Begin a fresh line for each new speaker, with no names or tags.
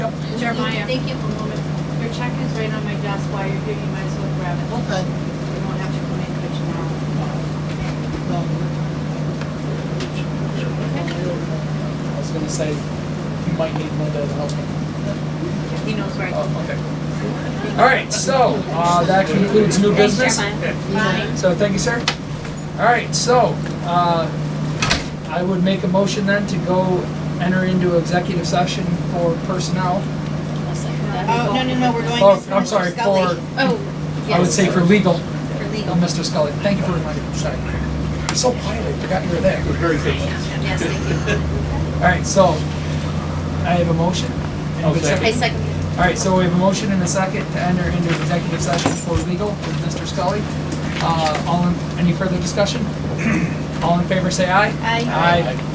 Jeremiah, thank you for a moment. Your check is right on my desk while you're here, you might as well grab it.
Okay.
You don't have to come in, but you now.
No.
I was gonna say, you might need Linda to help me.
He knows where I can.
Oh, okay. All right, so, uh, that concludes new
Thanks,
business.
Jeremiah. Bye.
So, thank you, sir. All right, so, uh, I would make a motion then to go enter into executive session for personnel.
Oh, no, no, no, we're going
Oh,
to.
I'm sorry, for,
Oh,
I would
yes,
say for legal,
for
Oh,
legal.
Mr. Scully, thank you for reminding me, sorry. You're So quiet, I forgot you were there.
Very good.
Yes, thank you.
All right, so, I have a motion. And
I'll
good
second.
I second it.
All right, so we have a motion and a second to enter into executive session for legal with Mr. Scully. Uh, all in, any further discussion? All in favor, say aye.
Aye.
Aye.